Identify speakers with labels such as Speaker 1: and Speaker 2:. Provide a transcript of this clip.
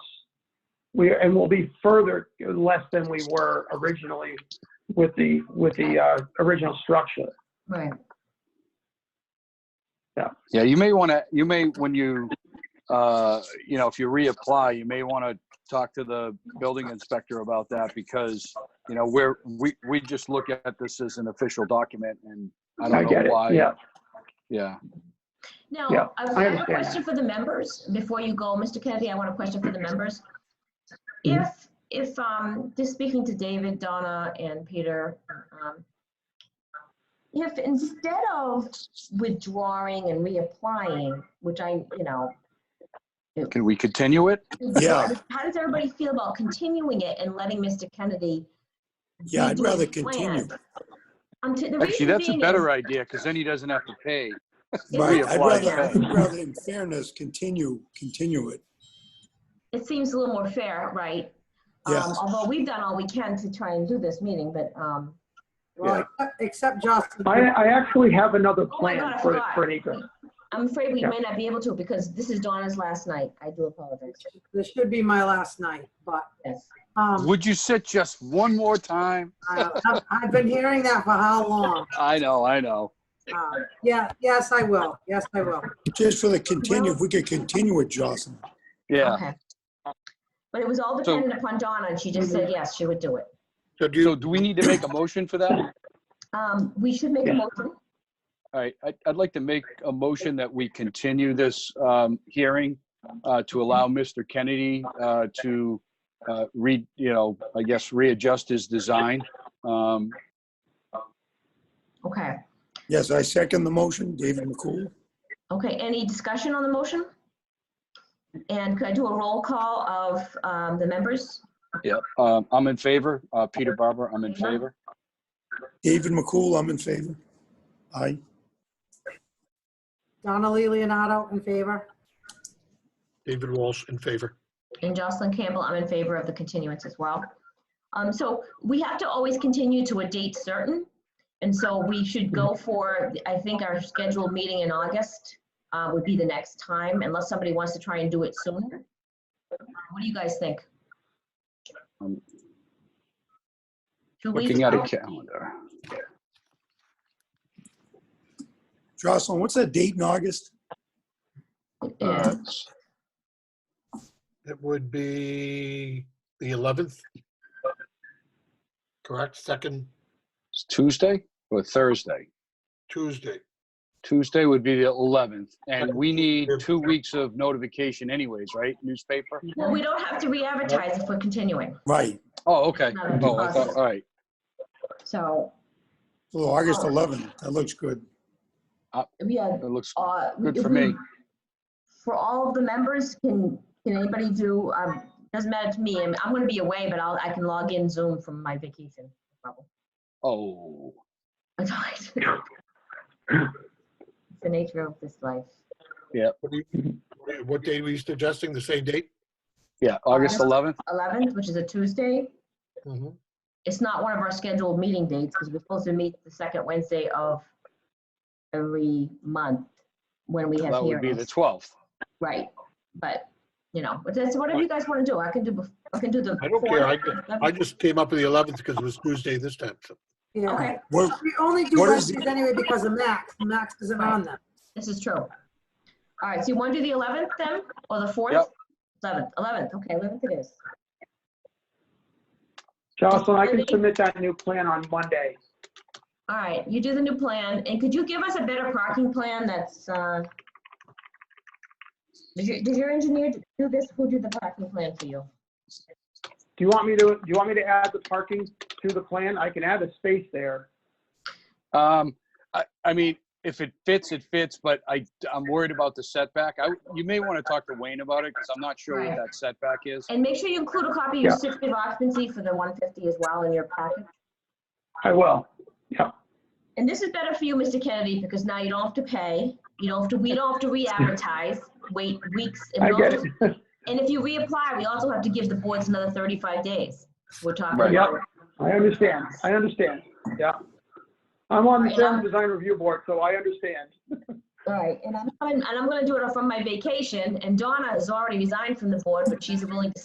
Speaker 1: we, and we'll be further less than we were originally with the, with the uh, original structure.
Speaker 2: Right.
Speaker 3: Yeah, you may want to, you may, when you, uh, you know, if you reapply, you may want to talk to the building inspector about that because, you know, we're, we, we just look at this as an official document and I
Speaker 1: I
Speaker 3: don't
Speaker 1: get
Speaker 3: know
Speaker 1: it,
Speaker 3: why.
Speaker 1: yeah.
Speaker 3: Yeah.
Speaker 1: Yeah,
Speaker 2: Now, I
Speaker 1: I
Speaker 2: I have a
Speaker 1: understand that.
Speaker 2: question for the members, before you go, Mr. Kennedy, I want a question for the members.
Speaker 4: Mm-hmm.
Speaker 2: If, if, um, just speaking to David, Donna, and Peter, um, if instead of withdrawing and reapplying, which I, you know,
Speaker 3: Can we continue it?
Speaker 4: Yeah.
Speaker 2: how does everybody feel about continuing it and letting Mr. Kennedy?
Speaker 4: Yeah, I'd
Speaker 2: redo
Speaker 4: rather
Speaker 2: his plan?
Speaker 4: continue.
Speaker 2: Um, to- the
Speaker 3: Actually,
Speaker 2: reason
Speaker 3: that's a
Speaker 2: being
Speaker 3: better
Speaker 2: is-
Speaker 3: idea because then he doesn't have to pay.
Speaker 4: Right,
Speaker 3: Reapply
Speaker 4: I'd rather,
Speaker 3: that.
Speaker 4: I'd rather in fairness, continue, continue it.
Speaker 2: It seems a little more fair, right?
Speaker 4: Yeah.
Speaker 2: Um, Although we've done all we can to try and do this meeting, but, um,
Speaker 5: Well, except- except Justin,
Speaker 1: I, I actually have another
Speaker 2: my God,
Speaker 1: plan
Speaker 2: I
Speaker 1: for,
Speaker 2: forgot.
Speaker 1: for an acre.
Speaker 2: I'm afraid we
Speaker 1: Yeah.
Speaker 2: may not be able to because this is Donna's last night. I do apologize.
Speaker 5: this should be my last night, but,
Speaker 2: Yes.
Speaker 5: um,
Speaker 3: Would you sit just one more time?
Speaker 5: I- I've- I've been hearing that for how long?
Speaker 3: I know, I know.
Speaker 5: Uh, Yeah, yes, I will, yes, I will.
Speaker 4: Just for the continue, if we could continue it, Jocelyn.
Speaker 3: Yeah.
Speaker 2: Okay. But it was all
Speaker 3: So-
Speaker 2: dependent upon Donna and she just said, yes, she would do it.
Speaker 3: So do we need to make a motion for that?
Speaker 2: Um, we should make a
Speaker 1: Yeah.
Speaker 2: motion.
Speaker 3: All right, I'd, I'd like to make a motion that we continue this um, hearing uh, to allow Mr. Kennedy uh, to uh, re, you know, I guess readjust his design. Um,
Speaker 2: Okay.
Speaker 4: Yes, I second the motion, David McCool.
Speaker 2: Okay. Any discussion on the motion? And could I do a roll call of, um, the members?
Speaker 3: um, I'm in favor, Uh, Peter Barber, I'm in favor.
Speaker 4: David McCool, I'm in favor. Aye.
Speaker 5: Donnelly Leonardo in favor?
Speaker 6: David Walsh in favor.
Speaker 2: And Jocelyn Campbell, I'm in favor of the continuance as well. Um, so we have to always continue to a date certain. And so we should go for, I think our scheduled meeting in August, uh, would be the next time unless somebody wants to try and do it sooner. What do you guys think?
Speaker 3: Um,
Speaker 2: Two weeks
Speaker 3: Looking at a
Speaker 2: out?
Speaker 3: calendar.
Speaker 4: Jocelyn, what's that date in August?
Speaker 2: Yeah.
Speaker 3: Uh,
Speaker 6: It would be the 11th. Correct, second
Speaker 3: It's Tuesday or Thursday?
Speaker 6: Tuesday.
Speaker 3: Tuesday would be the 11th, and we need two weeks of notification anyways, right? Newspaper?
Speaker 2: Well, we don't have to re-advertise if we're continuing.
Speaker 4: Right,
Speaker 3: Oh, okay. Oh, I thought- all right.
Speaker 2: So,
Speaker 4: well, August 11th, that looks good.
Speaker 2: yeah.
Speaker 3: It looks
Speaker 2: uh,
Speaker 3: good
Speaker 2: if
Speaker 3: for
Speaker 2: we-
Speaker 3: me.
Speaker 2: For all of the members, can, can anybody do, um, doesn't matter to me, I'm, I'm gonna be away, but I'll, I can log in Zoom from my vacation. no
Speaker 3: Oh.
Speaker 2: problem. It's the nature of this life.
Speaker 6: What do you- What day were you suggesting? The same date?
Speaker 3: Yeah, August
Speaker 2: August-
Speaker 3: 11th?
Speaker 2: Eleventh, which is a Tuesday,
Speaker 6: Mhm.
Speaker 2: it's not one of our scheduled meeting dates, because we're supposed to meet the second Wednesday of every month when we have
Speaker 3: That would be the
Speaker 2: hearings.
Speaker 3: 12th.
Speaker 2: Right, but, you know, but that's whatever you guys wanna do, I can do, bef- I can do the.
Speaker 6: I don't
Speaker 2: before-
Speaker 6: care. I ju- I just came up with the 11th because it was Tuesday this time. so.
Speaker 5: Yeah.
Speaker 2: Okay,
Speaker 4: What,
Speaker 5: We only do
Speaker 4: What is
Speaker 5: Wednesdays anyway because of Max, Max isn't on them.
Speaker 2: This is true. All right, so you want to do the 11th then, or the 4th?
Speaker 3: Yep.
Speaker 2: 11th, 11th, okay, 11th it is.
Speaker 1: Jocelyn, I can submit that new plan on Monday.
Speaker 2: All right, you do the new plan, and could you give us a better parking plan that's, uh, did your, did your engineer do this? Who did the parking plan for you?
Speaker 1: Do you want me to, do you want me to add the parking to the plan? I can add a space there.
Speaker 3: Um, I, I mean, if it fits, it fits, but I, I'm worried about the setback. I, you may want to talk to Wayne about it because I'm not sure
Speaker 2: Right.
Speaker 3: what that setback is.
Speaker 2: And make sure you include a copy of your
Speaker 1: Yeah.
Speaker 2: certificate of occupancy for the 150 as well in your packet.
Speaker 1: I will.
Speaker 2: And this is better for you, Mr. Kennedy, because now you don't have to pay, you don't have to, we don't have to re-advertise, wait weeks. and
Speaker 1: I
Speaker 2: we don't
Speaker 1: get
Speaker 2: have to
Speaker 1: it.
Speaker 2: And if you reapply, we also have to give the boards another 35 days. We're talking
Speaker 3: Right.
Speaker 1: Yep.
Speaker 2: about.
Speaker 1: I understand. I understand. Yeah. I'm on the Sound Design Review Board, so I understand.
Speaker 2: Right, and I'm, and I'm gonna do it from my vacation, and Donna has already resigned from the board, but she's willing to